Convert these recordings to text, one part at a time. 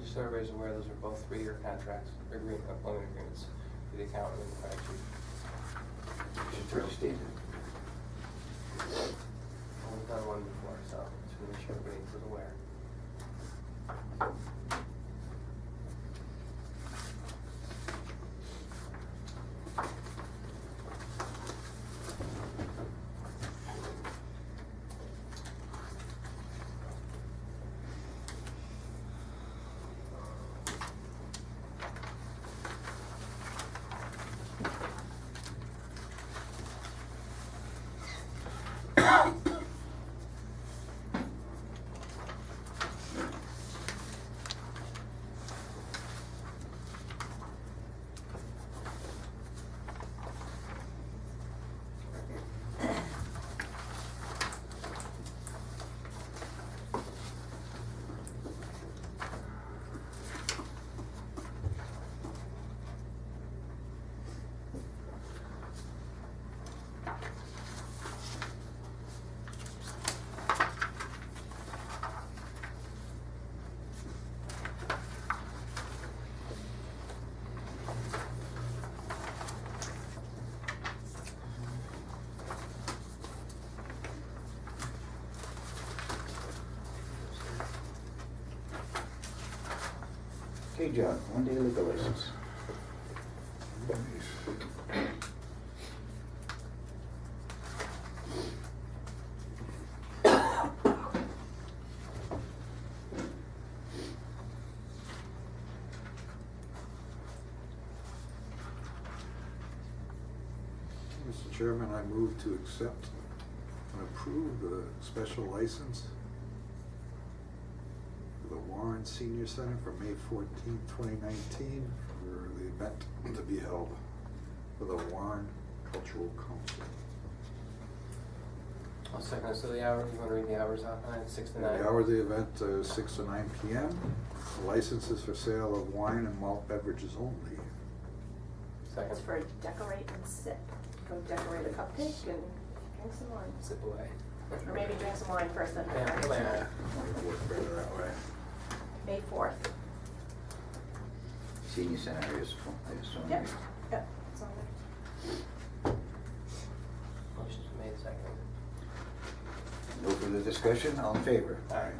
Just so everybody's aware, those are both three-year contracts, agreement, employment agreements, for the accountant and the fire chief. Attorney statement. We've done one before, so just to make sure everybody was aware. Okay, John, one day liquor license. Mr. Chairman, I move to accept and approve the special license for the Warren Senior Center for May 14, 2019, for the event to be held for the Warren Cultural Council. I'll second, so the hour, you wanna read the hours out, nine, six to And nine? The hour of the event is 6 to 9 p.m. The License is for sale of wine and malt beverages only. Second, It's for decorate and sip. Go decorate a cupcake and drink some wine. sip away. Or maybe drink some wine first then Yeah, decorate. plan. Might work better that way. May fourth. Senior Center is, I assume. Yep, yep, it's on Motion's been made, second. No further discussion, all in favor? Aye.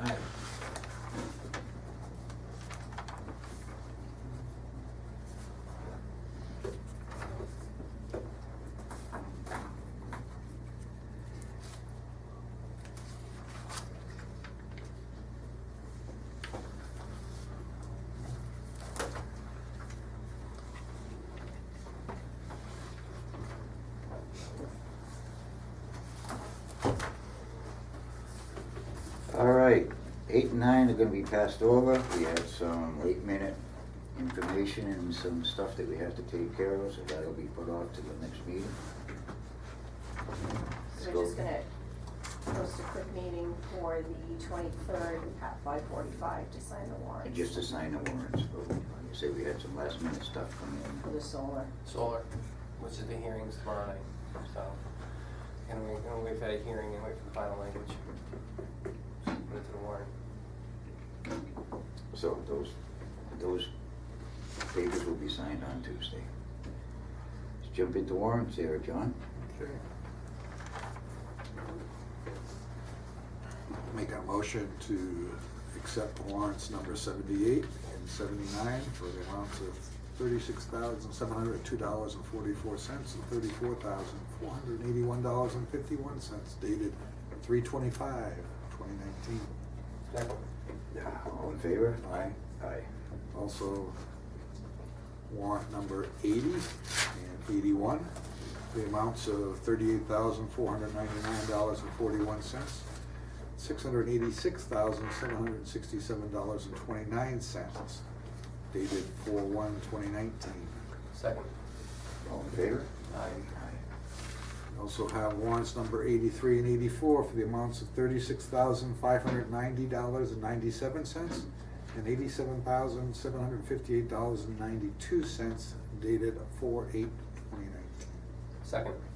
All right, eight and nine are gonna be passed over. We have some eight-minute information and some stuff that we have to take care of, so that'll be put off to the next meeting. Let's So go. we're just gonna post a quick meeting for the twenty-third at five forty-five to sign the warrant. Just to sign the warrants, but like you say, we had some last-minute stuff For come the solar. Solar, which is the hearings tomorrow night, so, and we, and we've had a hearing and wait for the final language. Put it to the warrant. in. So those, those papers will be signed on Tuesday. Let's jump into warrants there, John. Okay. Make a motion to accept warrants number seventy-eight and seventy-nine for the amounts of thirty-six thousand, seven hundred, two dollars and forty-four cents and thirty-four thousand, four hundred and eighty-one dollars and fifty-one cents dated three twenty-five, twenty nineteen. Second. All in favor? Aye. Aye. Also, warrant number 80 and 81, the amounts of $38,499.41, $686,767.29, dated 4/1/2019. Second. All in favor? Aye. We Also have warrants number 83 and 84 for the amounts of $36,590.97 and $87,758.92 dated 4/8/2019. Second.